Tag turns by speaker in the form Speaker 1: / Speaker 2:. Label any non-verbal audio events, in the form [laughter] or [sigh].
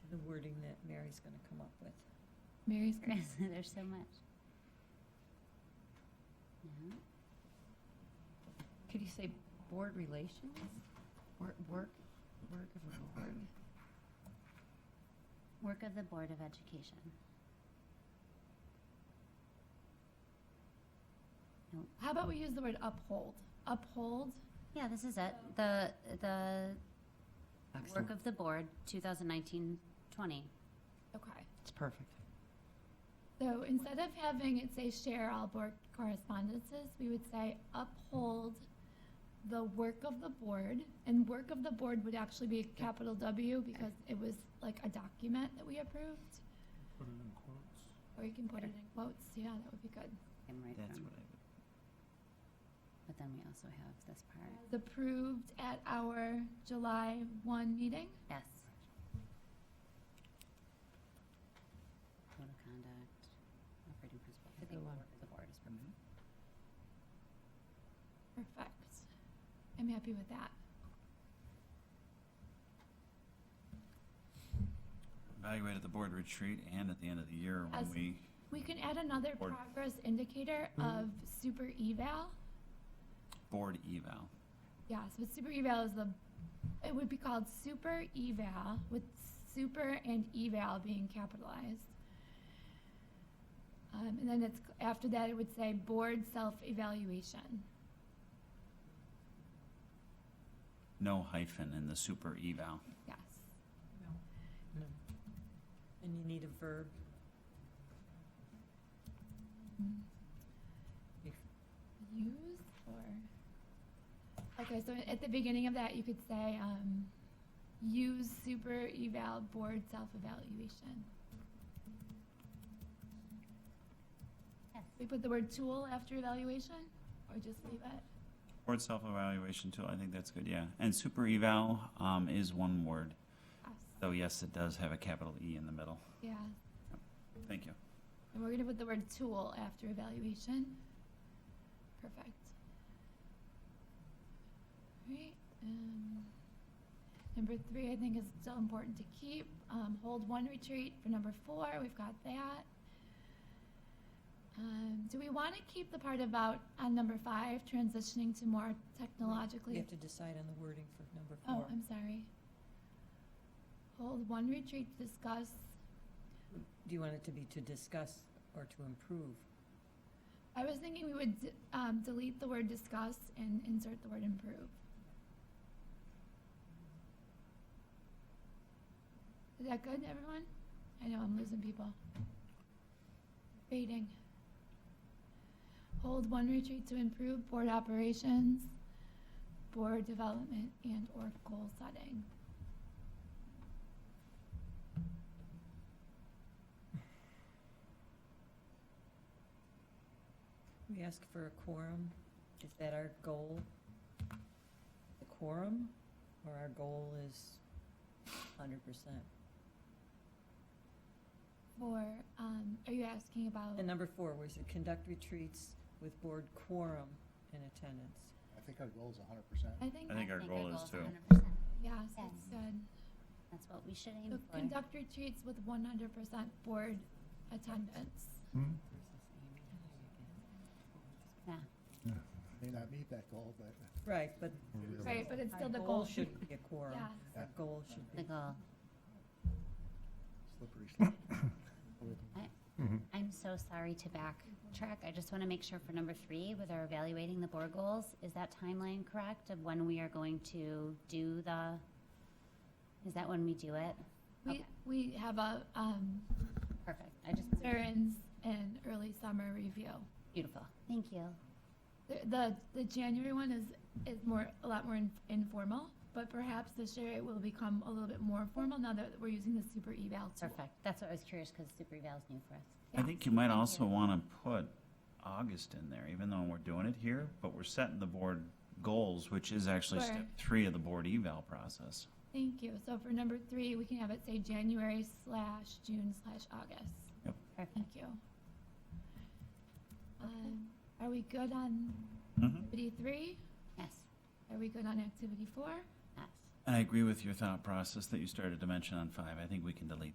Speaker 1: wording that Mary's gonna come up with.
Speaker 2: Mary's grass. [laughs] There's so much. Yeah. Could you say board relations? Work, work, work of the board. Work of the Board of Education.
Speaker 3: How about we use the word uphold? Uphold.
Speaker 2: Yeah, this is it. The, the work of the board, 2019-20.
Speaker 3: Okay.
Speaker 4: It's perfect.
Speaker 3: So instead of having it say share all board correspondences, we would say uphold the work of the board. And work of the board would actually be capital W because it was like a document that we approved.
Speaker 5: Put it in quotes.
Speaker 3: Or you can put it in quotes. Yeah, that would be good.
Speaker 2: I'm right
Speaker 4: That's
Speaker 2: from-
Speaker 4: what I would.
Speaker 2: But then we also have this part.
Speaker 3: Approved at our July 1 meeting.
Speaker 2: Yes. Code of conduct, operating principle. I think
Speaker 1: Good one.
Speaker 2: work of the board is perfect.
Speaker 3: Perfect. I'm happy with that.
Speaker 6: Evaluate at the board retreat and at the end of the year
Speaker 3: As-
Speaker 6: when we,
Speaker 3: We can add another
Speaker 6: Board.
Speaker 3: progress indicator of super eval.
Speaker 6: board eval.
Speaker 3: Yeah, so super eval is the, it would be called super eval with super and eval being capitalized. Um, and then it's, after that, it would say board self-evaluation.
Speaker 6: No hyphen in the super eval.
Speaker 3: Yes.
Speaker 1: No. um, And you need a verb.
Speaker 3: Use or, okay, so at the beginning of that, you could say, um, use super eval board self-evaluation.
Speaker 6: Mm-hmm.
Speaker 2: Yes.
Speaker 3: We put the word tool after evaluation or just leave it?
Speaker 6: Board self-evaluation tool, I think that's good, yeah. And super eval, um, is one word,
Speaker 3: Yes.
Speaker 6: though yes, it does have a capital E in the middle.
Speaker 3: Yeah,
Speaker 6: Thank you.
Speaker 3: and we're gonna put the word tool after evaluation. Perfect. Alright, um, number three, I think is still important to keep, um, hold one retreat for number four, we've got that. Um, do we wanna keep the part about, on number five, transitioning to more
Speaker 1: You
Speaker 3: technologically?
Speaker 1: have to decide on the wording for number
Speaker 3: Oh,
Speaker 1: four.
Speaker 3: I'm sorry. Hold one retreat to discuss
Speaker 1: Do you want it to be to discuss or to improve?
Speaker 3: I was thinking we would d- um, delete the word discuss and insert the word improve. Is that good, everyone? I know I'm losing people. Rating. Hold one retreat to improve board operations, board development, and or goal setting.
Speaker 1: We ask for a quorum. Is that our goal? The quorum, or our goal is hundred percent?
Speaker 3: For um, are you asking about?
Speaker 1: And number four was to conduct retreats with board quorum in attendance.
Speaker 7: I think our goal is hundred percent.
Speaker 3: I think
Speaker 6: I think our goal is to-
Speaker 2: 100%.
Speaker 3: yes,
Speaker 2: Yes.
Speaker 3: it's good.
Speaker 2: That's what we should
Speaker 3: So
Speaker 2: aim for.
Speaker 3: Conduct retreats with one hundred percent board attendance.
Speaker 2: Yeah.
Speaker 7: May not meet that goal, but.
Speaker 1: Right, but
Speaker 3: Right, but it's
Speaker 1: our
Speaker 3: still the
Speaker 1: goal
Speaker 3: goal.
Speaker 1: should be a quorum.
Speaker 3: Yes,
Speaker 1: Our goal should
Speaker 2: The
Speaker 1: be,
Speaker 2: goal.
Speaker 7: Slippery slope.
Speaker 2: I'm so sorry to backtrack. I just want to make sure for number three, with our evaluating the board goals, is that timeline correct of when we are going to do the, is that when we do it?
Speaker 3: we,
Speaker 2: Okay.
Speaker 3: we have a, um,
Speaker 2: Perfect. I just,
Speaker 3: veterans and early summer review.
Speaker 2: beautiful. Thank you.
Speaker 3: The, the, the January one is, is more, a lot more in- informal, but perhaps this year it will become a little bit more formal now that we're using the super eval tool.
Speaker 2: Perfect. That's what I was curious because super eval is new for us.
Speaker 6: I think you might
Speaker 2: Thank
Speaker 6: also
Speaker 2: you.
Speaker 6: want to put August in there, even though we're doing it here, but we're setting the board goals, which is actually
Speaker 3: Sure.
Speaker 6: step three of the board eval process.
Speaker 3: Thank you. So for number three, we can have it say January slash June slash August.
Speaker 2: Perfect.
Speaker 3: Thank you. Um, are we good on
Speaker 4: Mm-hmm.
Speaker 6: Mhm.
Speaker 3: activity three?
Speaker 2: Yes.
Speaker 3: Are we good on activity four?
Speaker 2: Yes.
Speaker 6: And I agree with your thought process that you started to mention on five. I think we can delete